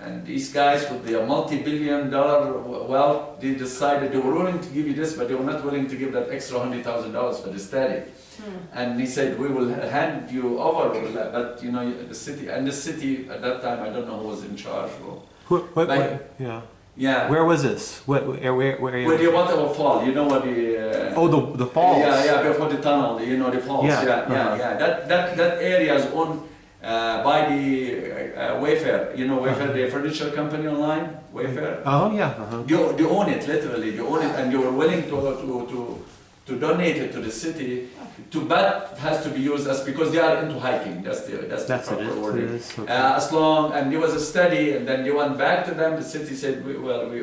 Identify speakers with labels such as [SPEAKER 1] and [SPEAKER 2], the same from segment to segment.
[SPEAKER 1] And these guys with their multi-billion dollar w- wealth, they decided they were willing to give you this, but they were not willing to give that extra hundred thousand dollars for the study. And he said, we will hand you over, we'll let- but you know, the city, and the city at that time, I don't know who was in charge. Or,
[SPEAKER 2] What, what,
[SPEAKER 1] Like-
[SPEAKER 2] what- yeah.
[SPEAKER 1] yeah,
[SPEAKER 2] Where was this? What? Where? Where? where
[SPEAKER 1] where the water will fall, you know what the. Uh,
[SPEAKER 2] oh, the the falls.
[SPEAKER 1] Yeah, yeah, before the tunnel, you know, the falls. Yeah,
[SPEAKER 2] Yeah,
[SPEAKER 1] yeah, yeah.
[SPEAKER 2] uh-huh.
[SPEAKER 1] That, that, that area is owned uh, by the uh, uh, Wayfair. You know, Wayfair,
[SPEAKER 2] Uh-huh.
[SPEAKER 1] the furniture company online, Wayfair.
[SPEAKER 2] Oh yeah. Uh-huh.
[SPEAKER 1] They, they own it, literally. They own it, and they were willing to, to, to, to donate it to the city. To but it has to be used as because they are into hiking. That's the that's,
[SPEAKER 2] That's
[SPEAKER 1] the
[SPEAKER 2] it.
[SPEAKER 1] proper
[SPEAKER 2] It
[SPEAKER 1] wording.
[SPEAKER 2] is. Okay.
[SPEAKER 1] Uh, as long, and there was a study, and then they went back to them. The city said, we, "Well, we,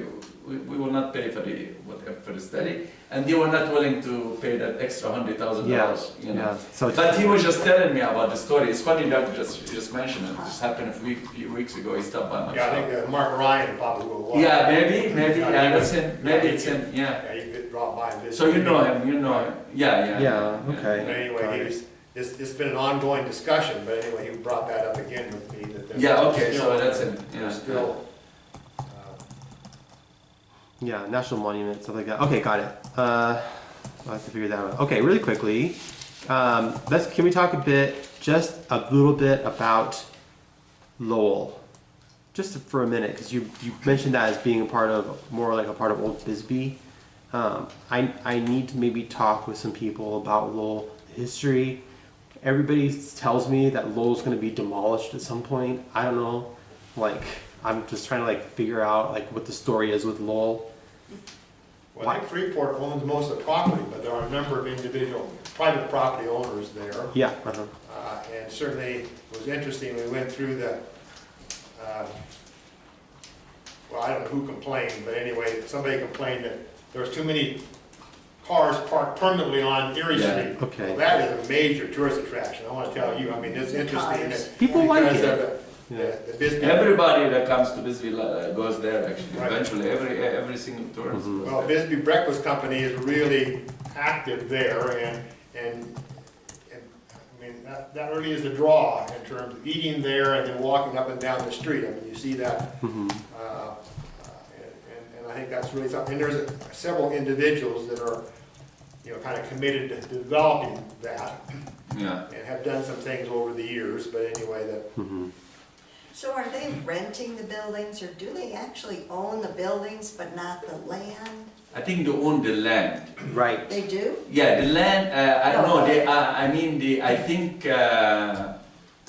[SPEAKER 1] we, we will not pay for the what, for the study," and they were not willing to pay that extra hundred thousand
[SPEAKER 2] yeah.
[SPEAKER 1] dollars. You know.
[SPEAKER 2] Yeah. So. it's-
[SPEAKER 1] But he was just telling me about the story. It's funny that just you just mentioned it. It just happened a few, few weeks ago. He stopped by my
[SPEAKER 3] Yeah, I
[SPEAKER 1] shop.
[SPEAKER 3] think uh, Mark Ryan probably will watch.
[SPEAKER 1] Yeah, maybe, maybe.
[SPEAKER 3] Yeah,
[SPEAKER 1] Yeah,
[SPEAKER 3] he
[SPEAKER 1] it's him.
[SPEAKER 3] was-
[SPEAKER 1] Maybe
[SPEAKER 3] yeah,
[SPEAKER 1] it's him. Yeah.
[SPEAKER 3] Yeah, you could drop by and visit.
[SPEAKER 1] So you know him. You know him. Yeah, yeah.
[SPEAKER 2] Yeah, okay.
[SPEAKER 3] But
[SPEAKER 2] Got
[SPEAKER 3] anyway,
[SPEAKER 2] it.
[SPEAKER 3] he was, it's, it's been an ongoing discussion, but anyway, he brought that up again with me that. there's
[SPEAKER 1] Yeah, okay,
[SPEAKER 3] still-
[SPEAKER 1] so that's him, yeah.
[SPEAKER 3] There's still, uh,
[SPEAKER 2] Yeah. National monument, stuff like that. Okay, got it. Uh, I have to figure that out. Okay, really quickly. Um, let's. Can we talk a bit, just a little bit about Lowell, just for a minute, because you you mentioned that as being a part of more like a part of Old Bisbee. Um, I I need to maybe talk with some people about Lowell history. Everybody s- tells me that Lowell's going to be demolished at some point. I don't know. Like I'm just trying to like figure out like what the story is with Lowell.
[SPEAKER 3] well, I think Freeport owns most of the property, but there are a number of individual, private property owners there.
[SPEAKER 2] Yeah. Uh-huh.
[SPEAKER 3] Uh, And certainly, it was interesting, we went through the, uh, well, I don't know who complained, but anyway, somebody complained that there was too many cars parked permanently on Erie
[SPEAKER 1] Yeah,
[SPEAKER 3] Street.
[SPEAKER 2] okay.
[SPEAKER 3] Well, that is a major tourist attraction, I want to tell you, I mean, it's interesting.
[SPEAKER 4] Cars.
[SPEAKER 3] that-
[SPEAKER 2] People like
[SPEAKER 3] because
[SPEAKER 2] it.
[SPEAKER 3] of the-
[SPEAKER 2] Yeah.
[SPEAKER 3] The the Bisbee,
[SPEAKER 1] Everybody that comes to Bisbee uh, goes there. Actually,
[SPEAKER 3] Right.
[SPEAKER 1] eventually, every e, every single tourist.
[SPEAKER 2] Mm-hmm.
[SPEAKER 1] goes
[SPEAKER 3] well,
[SPEAKER 1] there.
[SPEAKER 3] Bisbee Breakfast Company is really active there, and, and, and, I mean, that, that really is a draw in terms of eating there and then walking up and down the street, I mean, you see that
[SPEAKER 2] Mm-hmm.
[SPEAKER 3] Uh, And, and I think that's really something, and there's several individuals that are, you know, kind of committed to developing that
[SPEAKER 1] Yeah.
[SPEAKER 3] and have done some things over the years, but anyway, that,
[SPEAKER 2] Mm-hmm.
[SPEAKER 4] So are they renting the buildings, or do they actually own the buildings but not the land?
[SPEAKER 1] I think they own the land.
[SPEAKER 2] Right.
[SPEAKER 4] They do?
[SPEAKER 1] Yeah, the land, uh, I don't know,
[SPEAKER 4] No.
[SPEAKER 1] they, I, I mean, the, I think, uh,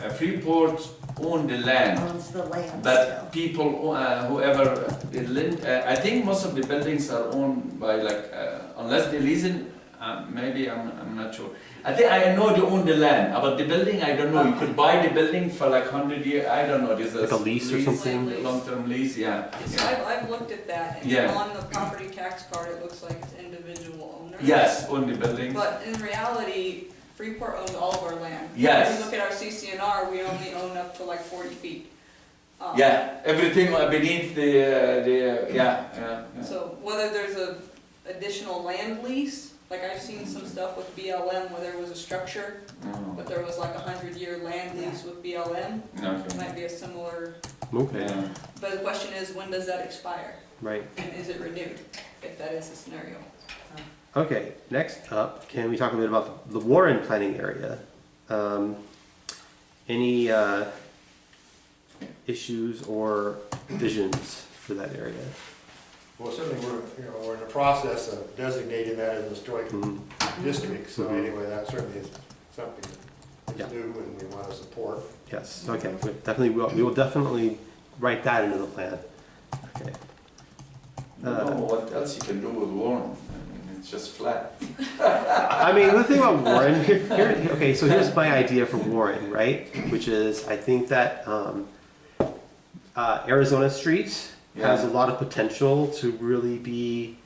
[SPEAKER 1] uh, Freeport own the land,
[SPEAKER 4] Owns the land still?
[SPEAKER 1] but people, uh, whoever, the land, uh, I think most of the buildings are owned by like, uh, unless they lease it, uh, maybe, I'm, I'm not sure. I think, I know they own the land, about the building, I don't know, you could buy the building for like hundred year, I don't know, there's a.
[SPEAKER 2] Like a lease or something?
[SPEAKER 5] Lease.
[SPEAKER 1] Long-term lease, yeah,
[SPEAKER 5] So
[SPEAKER 1] yeah.
[SPEAKER 5] I've, I've looked at that, and
[SPEAKER 1] Yeah.
[SPEAKER 5] on the property tax card, it looks like it's individual owners.
[SPEAKER 1] Yes, own the buildings.
[SPEAKER 5] But in reality, Freeport owns all of our land.
[SPEAKER 1] Yes.
[SPEAKER 5] If you look at our CCNR, we only own up to like forty feet. Um,
[SPEAKER 1] yeah, everything beneath the, uh, the, uh, yeah, yeah, yeah.
[SPEAKER 5] So whether there's a additional land lease, like I've seen some stuff with BLM where there was a structure,
[SPEAKER 1] Mm.
[SPEAKER 5] but there was like a hundred-year land lease with BLM,
[SPEAKER 1] Okay.
[SPEAKER 5] might be a similar,
[SPEAKER 2] Okay.
[SPEAKER 1] Yeah.
[SPEAKER 5] but the question is, when does that expire?
[SPEAKER 2] Right.
[SPEAKER 5] And is it renewed, if that is the scenario?
[SPEAKER 2] Okay. Next up, can we talk a bit about the Warren planning area? Um, any uh, issues or visions for that area?
[SPEAKER 3] well, certainly we're, you know, we're in the process of designating that as a historic
[SPEAKER 2] Mhm.
[SPEAKER 3] district, so
[SPEAKER 2] Mhm.
[SPEAKER 3] anyway, that certainly is something
[SPEAKER 2] Yeah.
[SPEAKER 3] that's new and we want to support.
[SPEAKER 2] Yes. Okay. We definitely. Will, we will definitely write that into the plan. Okay.
[SPEAKER 1] I don't know what else you can do with Warren. I mean, it's just flat.
[SPEAKER 2] I mean, the thing about Warren, here, here, okay, so here's my idea for Warren, right? Which is, I think that um, uh, Arizona Street has a lot of potential to really be.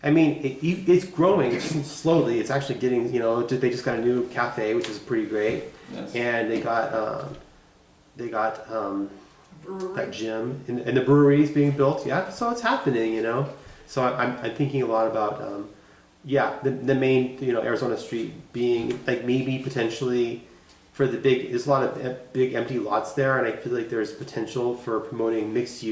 [SPEAKER 2] I mean, it, you- it's growing slowly. It's actually getting, you know, they just got a new cafe, which is pretty great,
[SPEAKER 1] Yes.
[SPEAKER 2] and they got um, they got um, that
[SPEAKER 4] Brewery.
[SPEAKER 2] gym and, and the brewery is being built. Yeah, so it's happening, you know. So I, I'm, I'm thinking a lot about, um, yeah, the, the main, you know, Arizona Street being like maybe potentially for the big, there's a lot of em- big empty lots there, and I feel like there's potential for promoting mixed use.